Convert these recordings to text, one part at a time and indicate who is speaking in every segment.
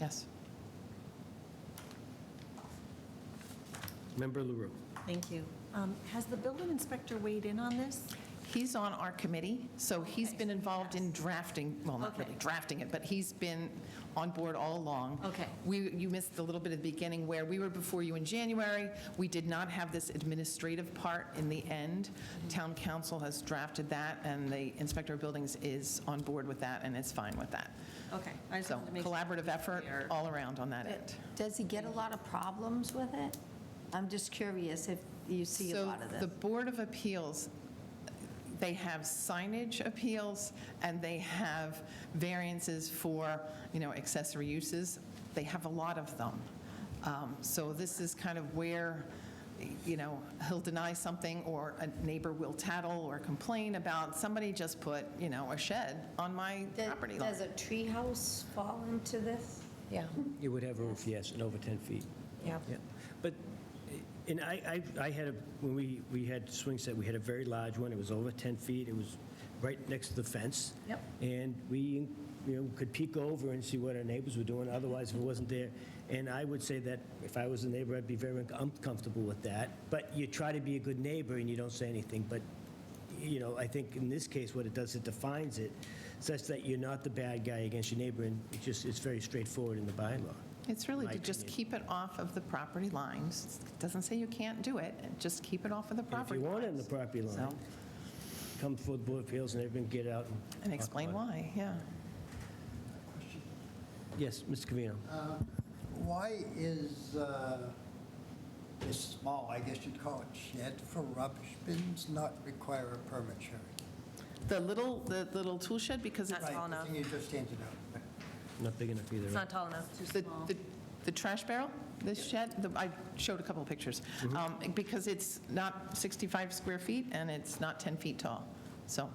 Speaker 1: Yes.
Speaker 2: Member LaRue.
Speaker 3: Thank you. Um, Has the building inspector weighed in on this?
Speaker 1: He's on our committee, so he's
Speaker 3: Okay,
Speaker 1: been
Speaker 3: so
Speaker 1: involved in drafting, well, not
Speaker 3: Okay.
Speaker 1: really drafting it, but he's been on board all along.
Speaker 3: Okay.
Speaker 1: We, you missed a little bit at the beginning where we were before you in January. We did not have this administrative part in the end.
Speaker 3: Mm-hmm.
Speaker 1: Town council has drafted that, and the inspector of buildings is on board with that and is fine with that.
Speaker 3: Okay, I just
Speaker 1: So
Speaker 3: wanted to make. sure
Speaker 1: collaborative effort
Speaker 3: we are-
Speaker 1: all around on that end.
Speaker 4: Does he get a lot of problems with it? I'm just curious if you see a lot of
Speaker 1: So
Speaker 4: this.
Speaker 1: the Board of Appeals, they have signage appeals, and they have variances for, you know, accessory uses. They have a lot of them. Um, So this is kind of where, you know, he'll deny something, or a neighbor will tattle or complain about, somebody just put, you know, a shed on my
Speaker 4: Does-
Speaker 1: property line.
Speaker 4: Does a treehouse fall into this?
Speaker 5: Yeah,
Speaker 2: It would have roof, yes, and over 10 feet.
Speaker 5: yeah.
Speaker 2: Yeah, But, and I, I I had, a when we, we had swing set, we had a very large one, it was over 10 feet, it was right next to the fence.
Speaker 3: Yep.
Speaker 2: And we, you know, could peek over and see what our neighbors were doing, otherwise if it wasn't there. And I would say that if I was a neighbor, I'd be very uncomfortable with that. But you try to be a good neighbor and you don't say anything, but, you know, I think in this case, what it does, it defines it such that you're not the bad guy against your neighbor, and it's just, it's very straightforward in the bylaw.
Speaker 1: It's really
Speaker 2: my
Speaker 1: to just
Speaker 2: opinion.
Speaker 1: keep it off of the property lines. It Doesn't say you can't do it, just keep it off of the
Speaker 2: And If
Speaker 1: property
Speaker 2: you
Speaker 1: lines.
Speaker 2: want it in the property line,
Speaker 1: So-
Speaker 2: come before the Board of Appeals and everyone get out.
Speaker 1: And explain
Speaker 2: talk about
Speaker 1: why, yeah.
Speaker 2: it. Yes, Mr. Covino.
Speaker 1: Uh,
Speaker 6: Why is uh, this small, I guess you'd call it shed for rubbish bins, not require a permit, Sherry?
Speaker 1: The little, the little tool shed, because it's,
Speaker 3: That's all
Speaker 6: Right, the
Speaker 3: enough.
Speaker 6: thing you just handed out.
Speaker 2: Not big enough either.
Speaker 3: It's
Speaker 2: right?
Speaker 3: not tall enough, too
Speaker 1: the,
Speaker 3: small.
Speaker 1: the- the trash barrel, this shed, the- I showed a couple of pictures, Um, because it's not 65 square feet, and it's not 10 feet tall. So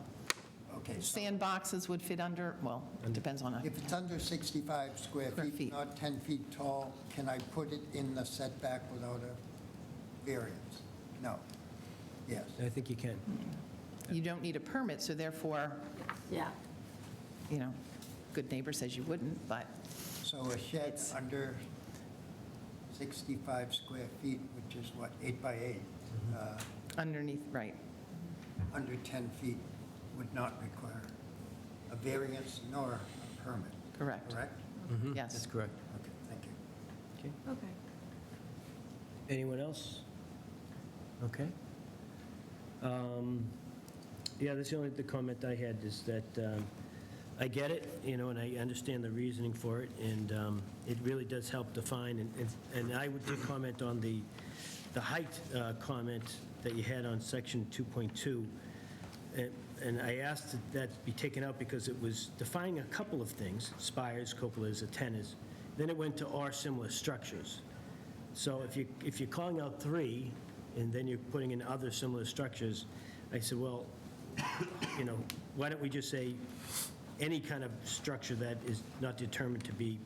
Speaker 6: Okay, so
Speaker 1: sandboxes would fit under, well, it depends on, a-
Speaker 6: if it's under 65 square
Speaker 1: Square feet.
Speaker 6: feet, not 10 feet tall, can I put it in the setback without a variance? No. Yes.
Speaker 2: I think you can.
Speaker 1: you don't need a permit, so therefore,
Speaker 4: Yeah.
Speaker 1: you know, good neighbor says you wouldn't, but
Speaker 6: So a shed under 65 square feet, which is what, eight by eight, uh,
Speaker 1: underneath, right.
Speaker 6: under 10 feet would not require a variance nor a permit,
Speaker 1: Correct.
Speaker 6: correct?
Speaker 1: Yes.
Speaker 2: correct.
Speaker 6: Okay, thank you.
Speaker 3: Okay.
Speaker 2: Anyone else? Okay. Um, Yeah, that's the only, the comment I had is that um, I get it, you know, and I understand the reasoning for it, and um, it really does help define, and- and- and I would just comment on the, the height uh, comment that you had on section 2.2. And- And I asked that that be taken out because it was defining a couple of things, spires, cupolas, antennas. Then it went to "or similar structures." So if you, if you're calling out three, and then you're putting in other similar structures, I said, well, you know, why don't we just say any kind of structure that is not determined to be,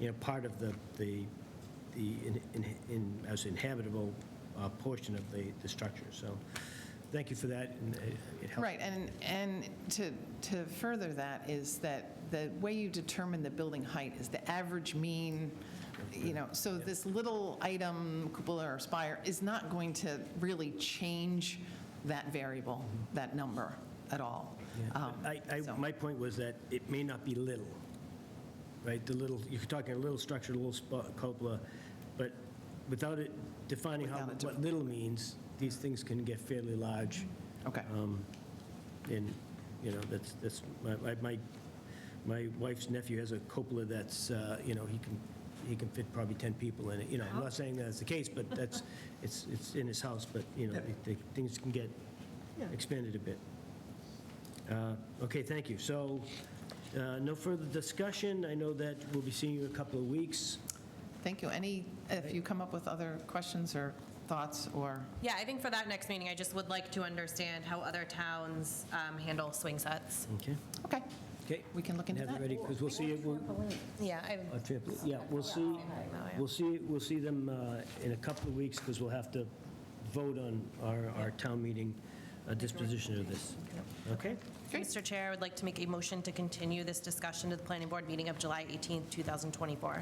Speaker 2: you know, part of the, the, the, in- in- in, as inhabitable uh, portion of the, the structure. So, thank you for that, and it it helped.
Speaker 1: Right, and, and to, to further that is that the way you determine the building height is the average mean, you know, so this little item, cupola or spire, is not going to really change that variable, that number at all. Um,
Speaker 2: Mm-hmm. I, I,
Speaker 1: so-
Speaker 2: my point was that it may not be little, right? The little, you're talking a little structure, a little spa- cupola, but without it defining how,
Speaker 1: Without it
Speaker 2: what little means, these things can get fairly large,
Speaker 1: Okay,
Speaker 2: um, and, you know, that's, that's, my, my- my, my wife's nephew has a cupola that's, uh, you know, he can, he can fit probably 10 people in it, you know, I'm not saying that's the case, but that's, it's, it's in his house, but, you know, the- the things can get expanded a bit. Uh, Okay, thank you. So, uh, no further discussion. I know that we'll be seeing you in a couple of weeks.
Speaker 1: thank you. Any, if you come up with other questions or thoughts or,
Speaker 3: Yeah, I think for that next meeting, I just would like to understand how other towns um, handle swing sets.
Speaker 2: Okay?
Speaker 1: okay,
Speaker 2: Okay.
Speaker 1: we can look into
Speaker 2: Have it
Speaker 1: that.
Speaker 2: ready, because we'll see you, we'll-
Speaker 3: Yeah, I,
Speaker 2: a triple- yeah, we'll see, we'll see, we'll see them uh, in a couple of weeks, because we'll have to vote on our, our town meeting uh, disposition of this. Okay?
Speaker 3: Mr. Chair, I would like to make a motion to continue this discussion to the planning board meeting of July 18th, 2024.